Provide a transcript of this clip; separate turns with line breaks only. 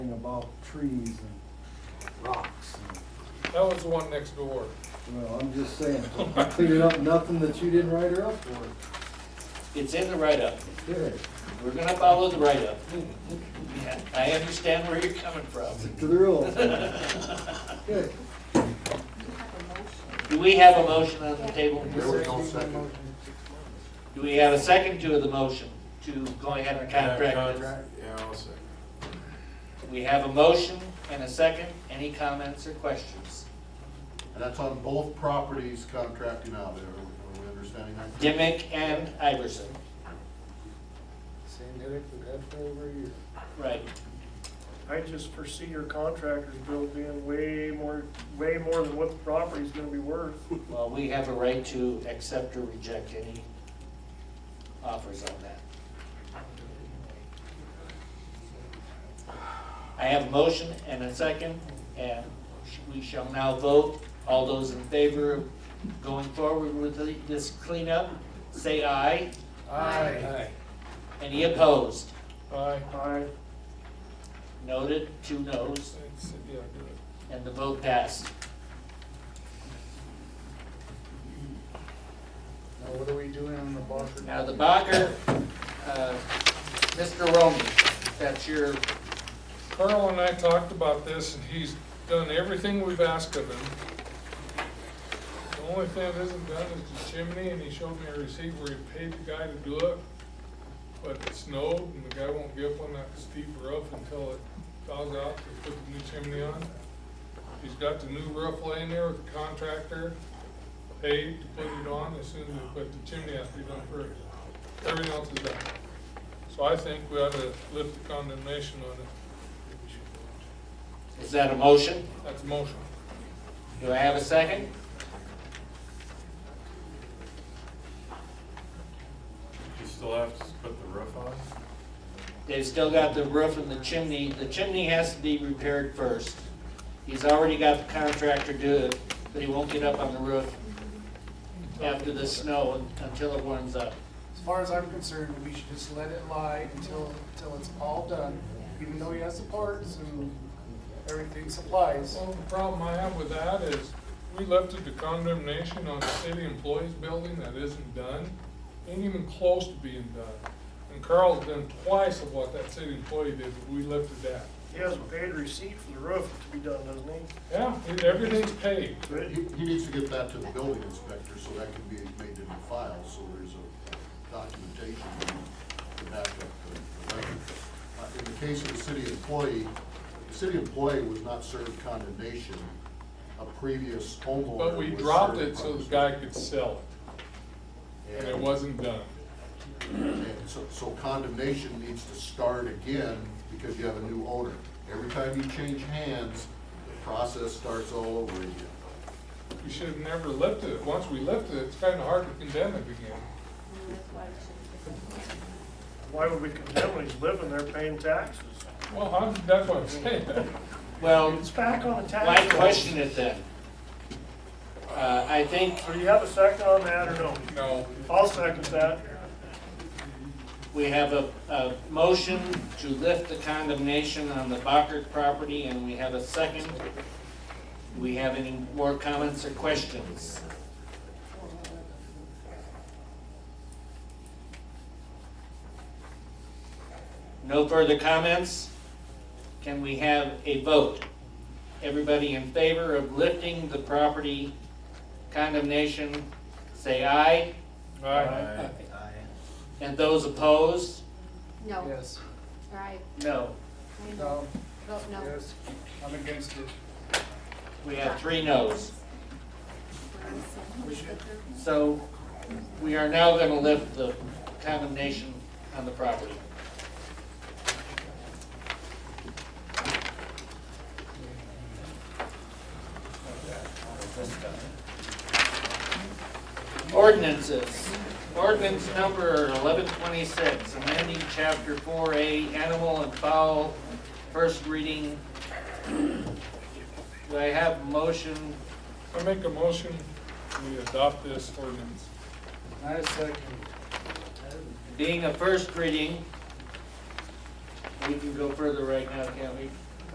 about trees and rocks
That was the one next door.
and, well, I'm just saying, cleaning up nothing that you didn't write her up for.
It's in the write-up.
Good.
We're gonna follow the write-up. Yeah, I understand where you're coming from.
Stick to the rules. Good.
Do we have a motion on the table?
There was no second.
Do we have a second to the motion to go ahead and contract this?
Yeah, I'll second.
We have a motion and a second. Any comments or questions?
And that's on both properties contracting out, are we- are we understanding that?
Dimick and Iverson,
Same headache we've had for over a year.
right.
I just foresee your contractor's bill being way more, way more than what the property's gonna be worth.
Well, we have a right to accept or reject any offers on that. I have a motion and a second, and we shall now vote. All those in favor of going forward with the- this cleanup, say aye.
Aye.
Any opposed?
Aye.
I,
Noted, two noes,
Thanks. Yeah, good.
and the vote passed.
Now, what are we doing on the Bossard?
Now, the Bakker, uh, Mr. Romey, that's your
Carl and I talked about this, and he's done everything we've asked of him. The only thing that isn't done is the chimney, and he showed me a receipt where he paid the guy to do it, but it snowed, and the guy won't give one that steep roof until it thaws out to put the new chimney on. He's got the new roof laying there with the contractor, paid to put it on as soon as we put the chimney has to be done first. Everything else is done. So I think we ought to lift the condemnation on it.
Is that a motion?
That's a motion.
Do I have a second?
You still have to put the roof on?
They've still got the roof and the chimney. The chimney has to be repaired first. He's already got the contractor do it, but he won't get up on the roof after the snow un- until it warms up.
As far as I'm concerned, we should just let it lie until, until it's all done, even though he has the parts and everything supplies.
Well, the problem I have with that is we lifted the condemnation on the city employees building that isn't done. Ain't even close to being done. And Carl's done twice of what that city employee did, but we lifted that.
he has a paid receipt for the roof to be done, doesn't he?
Yeah, it- everything's paid.
He, he needs to get that to the building inspector, so that can be made in the file, so there's a documentation to back up the the record. Uh, In the case of the city employee, the city employee was not served condemnation, a previous homeowner
But we
was
dropped
served
it so the
condemnation.
guy could sell it. And it wasn't done.
And So, so condemnation needs to start again because you have a new owner. Every time you change hands, the process starts all over again.
We should have never lifted it. Once we lifted it, it's kind of hard to condemn it again.
Why would we condemn when he's living there paying taxes?
Well, I'm, that's what I'm saying.
Well,
It's back on the
my
tax.
question is then, uh, I think
So do you have a second on that or no?
No,
I'll second that.
we have a, a motion to lift the condemnation on the Bockert property, and we have a second. Do we have any more comments or questions? No further comments? Can we have a vote? Everybody in favor of lifting the property condemnation, say aye.
I,
And those opposed?
No,
Yes,
right,
No.
I know,
no,
vote no.
yes, I'm against it.
We have three no's. So we are now going to lift the condemnation on the property. Ordinances. Ordinance number 1126, amending Chapter 4A, Animal and Fowl, first reading. Do I have a motion
I make a motion, we adopt this ordinance.
I second.
Being a first reading, we can go further right now, can't we?